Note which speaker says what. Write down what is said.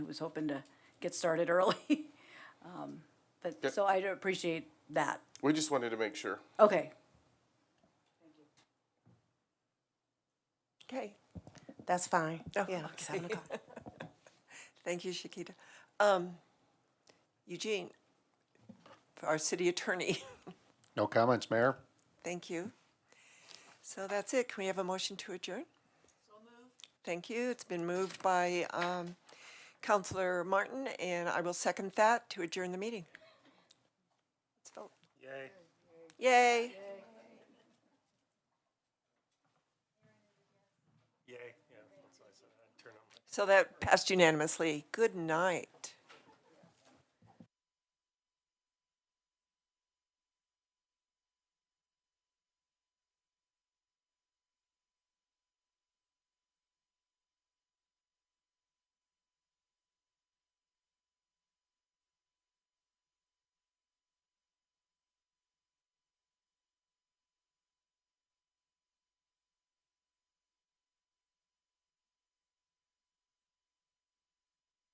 Speaker 1: was hoping to get started early. Um, But,
Speaker 2: Yep.
Speaker 1: so I appreciate that.
Speaker 2: We just wanted to make sure.
Speaker 1: Okay,
Speaker 3: Okay,
Speaker 4: That's fine.
Speaker 3: Oh,
Speaker 4: Yeah,
Speaker 3: okay.
Speaker 4: seven o'clock.
Speaker 3: thank you, Shakita. Um, Eugene, for our city attorney,
Speaker 2: No comments, Mayor?
Speaker 3: thank you. So that's it. Can we have a motion to adjourn? So moved. Thank you. It's been moved by um, Counselor Martin, and I will second that to adjourn the meeting. Let's vote. Yay. Yay.
Speaker 5: Yay, yeah, that's what I said, I turn on.
Speaker 3: So that passed unanimously. Good night.